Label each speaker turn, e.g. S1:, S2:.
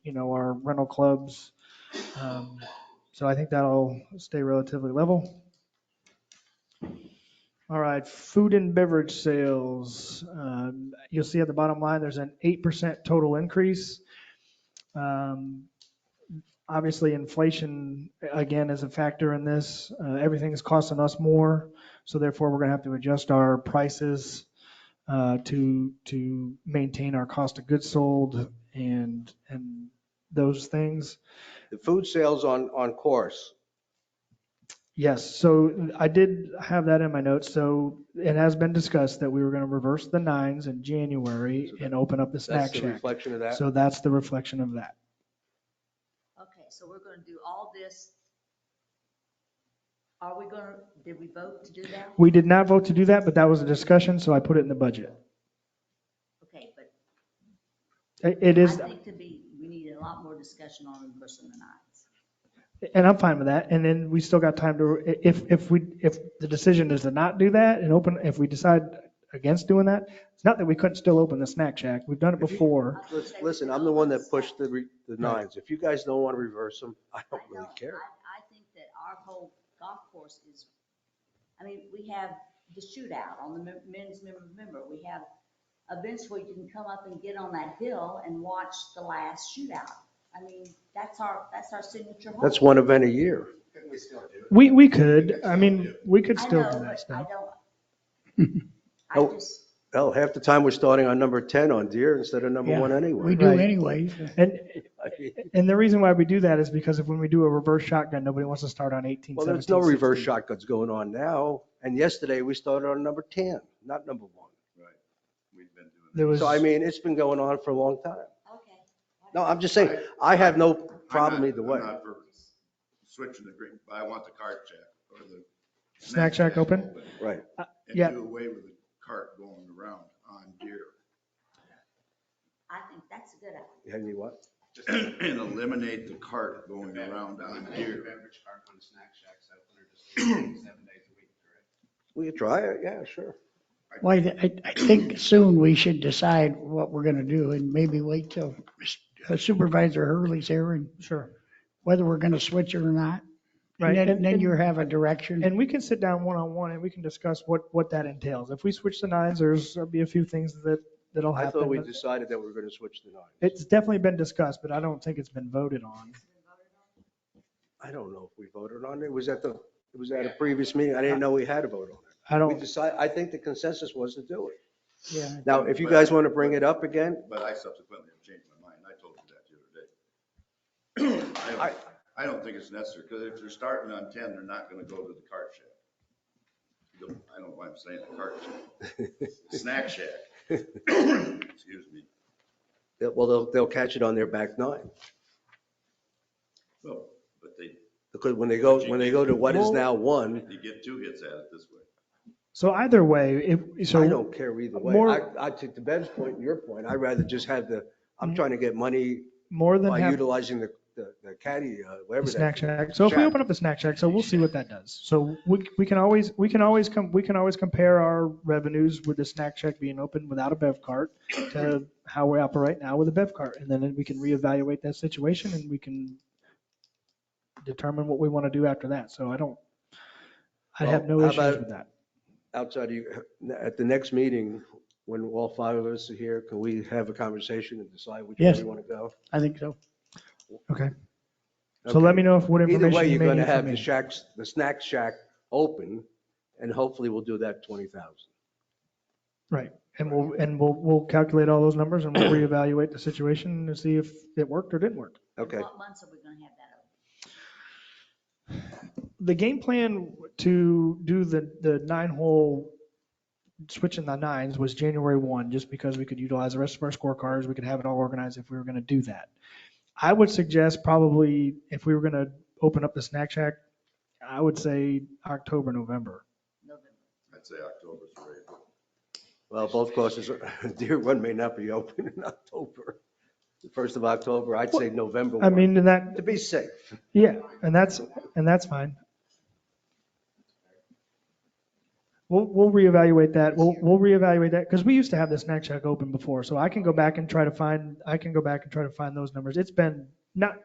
S1: you know, our rental clubs. Um, So I think that'll stay relatively level. All right, food and beverage sales. Um, You'll see at the bottom line, there's an 8% total increase. Um, Obviously, inflation, again, is a factor in this. Uh, Everything's costing us more, so therefore, we're going to have to adjust our prices uh, to, to maintain our cost of goods sold and, and those things.
S2: The food sales on, on course.
S1: Yes, so I did have that in my notes. So it has been discussed that we were going to reverse the nines in January and open up the
S2: That's
S1: snack
S2: the
S1: shack.
S2: reflection of that.
S1: So that's the reflection of that.
S3: Okay, so we're gonna do all this. Are we gonna, did we vote to do that?
S1: We did not vote to do that, but that was a discussion, so I put it in the budget.
S3: Okay, but
S1: It it
S3: I
S1: is,
S3: think to be, we need a lot more discussion on reversing the nines.
S1: and I'm fine with that. And then we still got time to, if, if we, if the decision is to not do that and open, if we decide against doing that, it's not that we couldn't still open the snack shack. We've done it before.
S3: I
S2: Lis-
S3: think
S2: Listen,
S3: we
S2: I'm
S3: can
S2: the one that
S3: open
S2: pushed the,
S3: snack.
S2: re- the nines. If you guys don't want to reverse them, I don't
S3: I
S2: really
S3: know.
S2: care.
S3: I, I think that our whole golf course is, I mean, we have the shootout on the men- men's member, member, we have events where you can come up and get on that hill and watch the last shootout. I mean, that's our, that's our signature. hole.
S2: That's one event a year.
S4: Couldn't we still do it?
S1: We, we could, I mean, we could
S3: I
S1: still
S3: know,
S1: do
S3: but
S1: that
S3: I
S1: stuff.
S3: don't.
S2: Nope.
S3: I just,
S2: Hell, half the time we're starting on number 10 on deer instead of number
S5: Yeah,
S2: one
S5: We
S2: anyway.
S5: do
S1: Right.
S5: anyways.
S1: And,
S2: I mean,
S1: and the reason why we do that is because if when we do a reverse shotgun, nobody wants to start on 18,
S2: Well, there's no
S1: 17,
S2: reverse
S1: 16.
S2: shotguns going on now. And yesterday we started on number 10, not number one.
S4: We've been doing
S1: There was,
S2: So I mean, it's been going on for a long time.
S3: okay.
S2: No, I'm just saying, I have no problem either way.
S4: I'm not for switching the green, but I want the cart shack or the.
S1: Snack shack open?
S2: Right.
S4: And
S1: Yeah.
S4: do away with the cart going around on deer.
S3: I think that's a good idea.
S2: And you what?
S4: And eliminate the cart going around on deer.
S6: Beverage cart on snack shacks open or just seven days a week, correct?
S2: We could try it. Yeah, sure.
S5: Well, I, I- I think soon we should decide what we're gonna do and maybe wait till uh, Supervisor Hurley's here and
S1: sure,
S5: whether we're gonna switch it or not.
S1: right.
S5: And then,
S1: And,
S5: then you
S1: and,
S5: have a direction.
S1: and we can sit down one-on-one and we can discuss what, what that entails. If we switch the nines, there's, there'll be a few things that, that'll
S2: I thought we
S1: happen.
S2: decided that we were going to switch to nine.
S1: It's definitely been discussed, but I don't think it's been voted on.
S2: I don't know if we voted on it. It was at the, it was at a previous meeting. I didn't know we had a vote on it.
S1: I
S2: We
S1: don't,
S2: decided, I think the consensus was to do it.
S1: yeah.
S2: Now, if you guys want to bring it up again,
S4: But I subsequently have changed my mind. I told you that the other day. I don't- I don't think it's necessary, because if they're starting on ten, they're not gonna go to the cart shack. You don't- I don't know why I'm saying the cart shack. Snack shack. Excuse me.
S2: that- well, they'll, they'll catch it on their back nine.
S4: Well, but they,
S2: Because when they go, when they go to what is now one,
S4: you get two hits at it this way.
S1: So either way, if,
S2: I
S1: so,
S2: don't care either way.
S1: More-
S2: I, I took the Ben's point and your point. I'd rather just have the, I'm trying to get money
S1: Mm-hmm. more than
S2: by
S1: half the
S2: utilizing the, the the caddy, uh, whatever that.
S1: snack shack. So if we
S2: Shack.
S1: open up the snack shack, so we'll see what that does. So we, we can always, we can always come, we can always compare our revenues with the snack shack being open without a bev cart to how we operate now with a bev cart. And then we can reevaluate that situation and we can determine what we want to do after that. So I don't, I have no
S2: Well, how
S1: issues
S2: about-
S1: with that.
S2: outside of you, at the next meeting, when all five of us are here, can we have a conversation and decide which way
S5: Yes.
S2: we want to go?
S5: I think so.
S1: So let
S2: Okay.
S1: me know if what
S2: Either way,
S1: information you
S2: you're
S1: may
S2: going
S1: need
S2: to
S1: from
S2: have the
S1: me.
S2: shacks, the snack shack open, and hopefully we'll do that 20,000.
S1: Right. And we'll, and we'll, we'll calculate all those numbers and we'll reevaluate the situation and see if it worked or didn't work.
S2: Okay,
S3: What months are we gonna have that open?
S1: the game plan to do the, the nine hole switching the nines was January 1, just because we could utilize the rest of our scorecards. We could have it all organized if we were going to do that. I would suggest probably if we were going to open up the snack shack, I would say October, November.
S3: November?
S4: I'd say October's great.
S2: well, both courses, Deer Run may not be open in October, the 1st of October, I'd say November
S1: I
S2: 1.
S1: mean, and that,
S2: To be safe.
S1: yeah, and that's, and that's fine. We'll, we'll reevaluate that. We'll, we'll reevaluate that because we used to have this snack shack open before. So I can go back and try to find, I can go back and try to find those numbers. It's been not,